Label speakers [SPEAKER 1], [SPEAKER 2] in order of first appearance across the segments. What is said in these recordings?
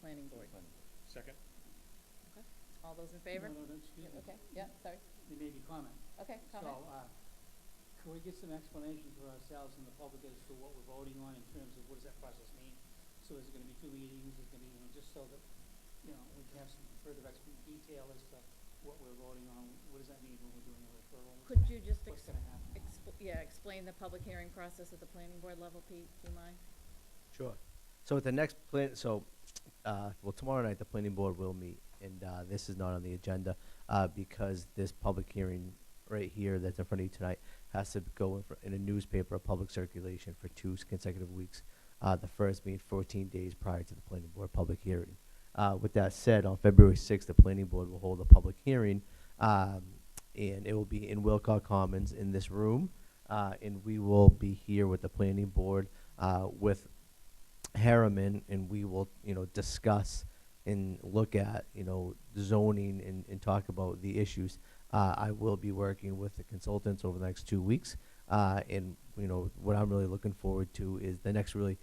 [SPEAKER 1] planning board.
[SPEAKER 2] Second?
[SPEAKER 1] All those in favor?
[SPEAKER 3] No, no, no, excuse me.
[SPEAKER 1] Okay, yeah, sorry.
[SPEAKER 3] There may be comment.
[SPEAKER 1] Okay, comment?
[SPEAKER 3] So, uh, could we get some explanation for ourselves and the public as to what we're voting on in terms of what does that process mean? So is it gonna be two meetings, is it gonna be, you know, just so that, you know, we can have some further ex- detail as to what we're voting on, what does that mean when we're doing a referral?
[SPEAKER 1] Could you just,
[SPEAKER 3] What's
[SPEAKER 1] ex-
[SPEAKER 3] gonna happen?
[SPEAKER 1] expl- yeah, explain the public hearing process at the planning board level, Pete, do you mind?
[SPEAKER 4] Sure. So at the next plan, so, uh, well, tomorrow night, the planning board will meet, and, uh, this is not on the agenda, uh, because this public hearing right here that's in front of you tonight has to go in, fr- in a newspaper, of public circulation for two consecutive weeks. Uh, the first being fourteen days prior to the planning board public hearing. Uh, with that said, on February sixth, the planning board will hold a public hearing, um, and it will be in Wilcox Commons in this room. Uh, and we will be here with the planning board, uh, with Harriman and we will, you know, discuss and look at, you know, zoning and, and talk about the issues. Uh, I will be working with the consultants over the next two weeks. Uh, and, you know, what I'm really looking forward to is the next really,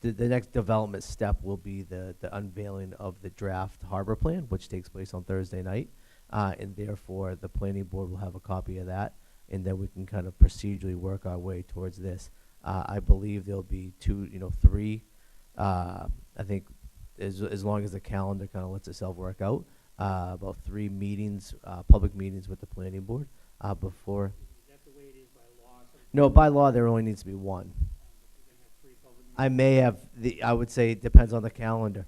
[SPEAKER 4] the, the next development step will be the, the unveiling of the draft harbor plan, which takes place on Thursday night. Uh, and therefore, the planning board will have a copy of that, and then we can kind of procedurally work our way towards this. Uh, I believe there'll be two, you know, three, uh, I think, as, as long as the calendar kind of lets itself work out, uh, about three meetings, uh, public meetings with the planning board, uh, before,
[SPEAKER 3] Is that the way it is by law? So it's
[SPEAKER 4] no,
[SPEAKER 3] gonna
[SPEAKER 4] by
[SPEAKER 3] be-
[SPEAKER 4] law, there only needs to be one.
[SPEAKER 3] We're gonna have three public
[SPEAKER 4] I
[SPEAKER 3] meetings.
[SPEAKER 4] may have the. I would say it depends on the calendar.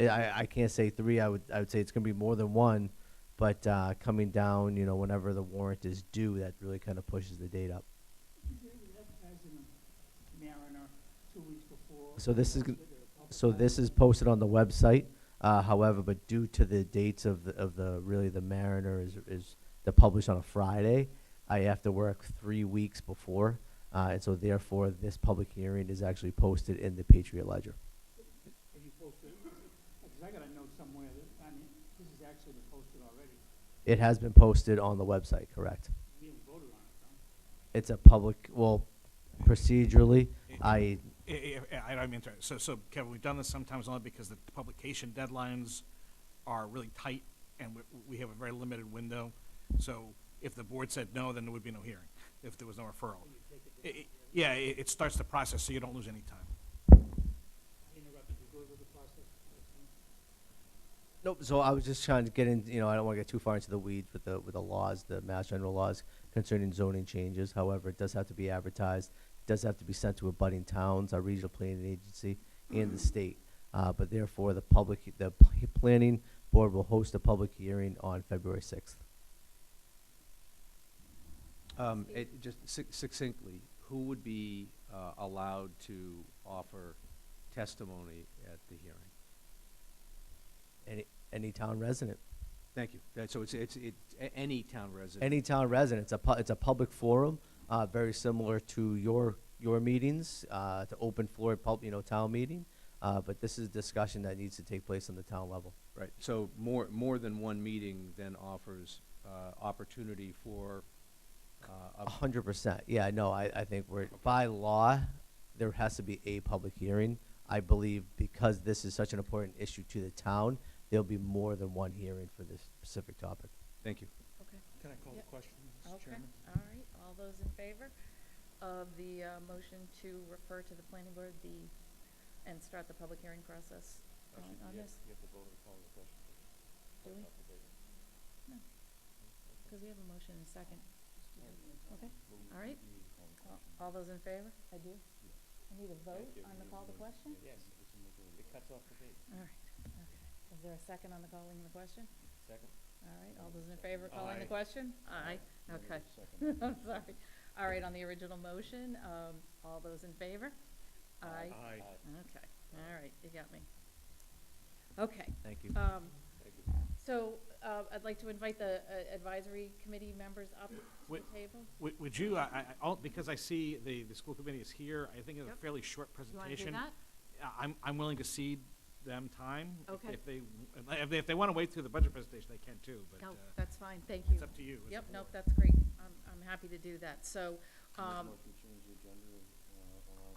[SPEAKER 4] I- I I can't say three. I would I would say it's going to be more than one, but uh, coming down, you know, whenever the warrant is due, that really kind of pushes the date up.
[SPEAKER 3] Is there- is that as in Mariner, two weeks before?
[SPEAKER 4] So this is
[SPEAKER 3] Is
[SPEAKER 4] gon-
[SPEAKER 3] it a public
[SPEAKER 4] So this is
[SPEAKER 3] meeting?
[SPEAKER 4] posted on the website. Uh, however, but due to the dates of the, of the really the Mariner is is they're published on a Friday, I have to work three weeks before, uh, and so therefore this public hearing is actually posted in the Patriot Ledger.
[SPEAKER 3] Have you posted, because I got a note somewhere that, I mean, this has actually been posted already.
[SPEAKER 4] It has been posted on the website, correct?
[SPEAKER 3] We haven't voted on it, though.
[SPEAKER 4] It's a public, well, procedurally, I,
[SPEAKER 2] I, I- I don't mean to, so, so Kevin, we've done this sometimes only because the publication deadlines are really tight and we, we have a very limited window. So if the board said no, then there would be no hearing, if there was no referral. I- I- Yeah, it, it starts the process, so you don't lose any time.
[SPEAKER 3] I interrupted you, go over the process.
[SPEAKER 4] nope, so I was just trying to get in, you know, I don't wanna get too far into the weeds with the, with the laws, the mass general laws concerning zoning changes, however, it does have to be advertised, does have to be sent to abutting towns, our regional planning agency, and the state. Uh, but therefore, the public, the p- planning board will host a public hearing on February sixth.
[SPEAKER 5] Um, it, just suc- succinctly, who would be, uh, allowed to offer testimony at the hearing?
[SPEAKER 4] Any, any town resident.
[SPEAKER 5] Thank you. That, so it's, it's, it, a- any town resident?
[SPEAKER 4] any town resident. It's a, pu- it's a public forum, uh, very similar to your, your meetings, uh, to open floor, pub, you know, town meeting. Uh, but this is a discussion that needs to take place on the town level.
[SPEAKER 5] Right, so more, more than one meeting then offers, uh, opportunity for,
[SPEAKER 4] A
[SPEAKER 5] uh, a-
[SPEAKER 4] hundred percent. Yeah, no, I, I think we're, by law, there has to be a public hearing. I believe because this is such an important issue to the town, there'll be more than one hearing for this specific topic.
[SPEAKER 5] thank you.
[SPEAKER 1] Okay,
[SPEAKER 2] Can I call
[SPEAKER 1] the Yep.
[SPEAKER 2] question,
[SPEAKER 1] okay, all right, all those in favor of the, uh, motion to refer to the planning board the, and start the public hearing process on on this? Do we? No, because we have a motion and a second. Okay, all right. All- All those in favor? I do. I need a vote on the call to question?
[SPEAKER 6] Yes. It cuts off the date.
[SPEAKER 1] All right, okay. Is there a second on the calling the question?
[SPEAKER 6] Second?
[SPEAKER 1] All right, all those in favor of calling the
[SPEAKER 2] Aye.
[SPEAKER 1] question? Aye, okay.
[SPEAKER 6] Second.
[SPEAKER 1] I'm sorry. All right, on the original motion, um, all those in favor? Aye.
[SPEAKER 2] Aye.
[SPEAKER 1] Okay, all right, you got me. Okay,
[SPEAKER 4] Thank you.
[SPEAKER 1] um,
[SPEAKER 6] Thank you.
[SPEAKER 1] so, uh, I'd like to invite the uh, advisory committee members up to
[SPEAKER 2] Wait.
[SPEAKER 1] the table.
[SPEAKER 2] Would, would you, I, I, I- all- because I see the, the school committee is here, I think it's a
[SPEAKER 1] Yep.
[SPEAKER 2] fairly short
[SPEAKER 1] You wanna do
[SPEAKER 2] presentation.
[SPEAKER 1] that?
[SPEAKER 2] I- I'm, I'm willing to cede them time. if-
[SPEAKER 1] Okay.
[SPEAKER 2] If they, if they, if they want to wait through the budget presentation, they can too, but
[SPEAKER 1] No,
[SPEAKER 2] uh,
[SPEAKER 1] that's fine, thank you.
[SPEAKER 2] it's up to you. as a
[SPEAKER 1] Yep, nope,
[SPEAKER 2] board.
[SPEAKER 1] that's great. I'm, I'm happy to do that. So, um,
[SPEAKER 6] Motion to change the agenda.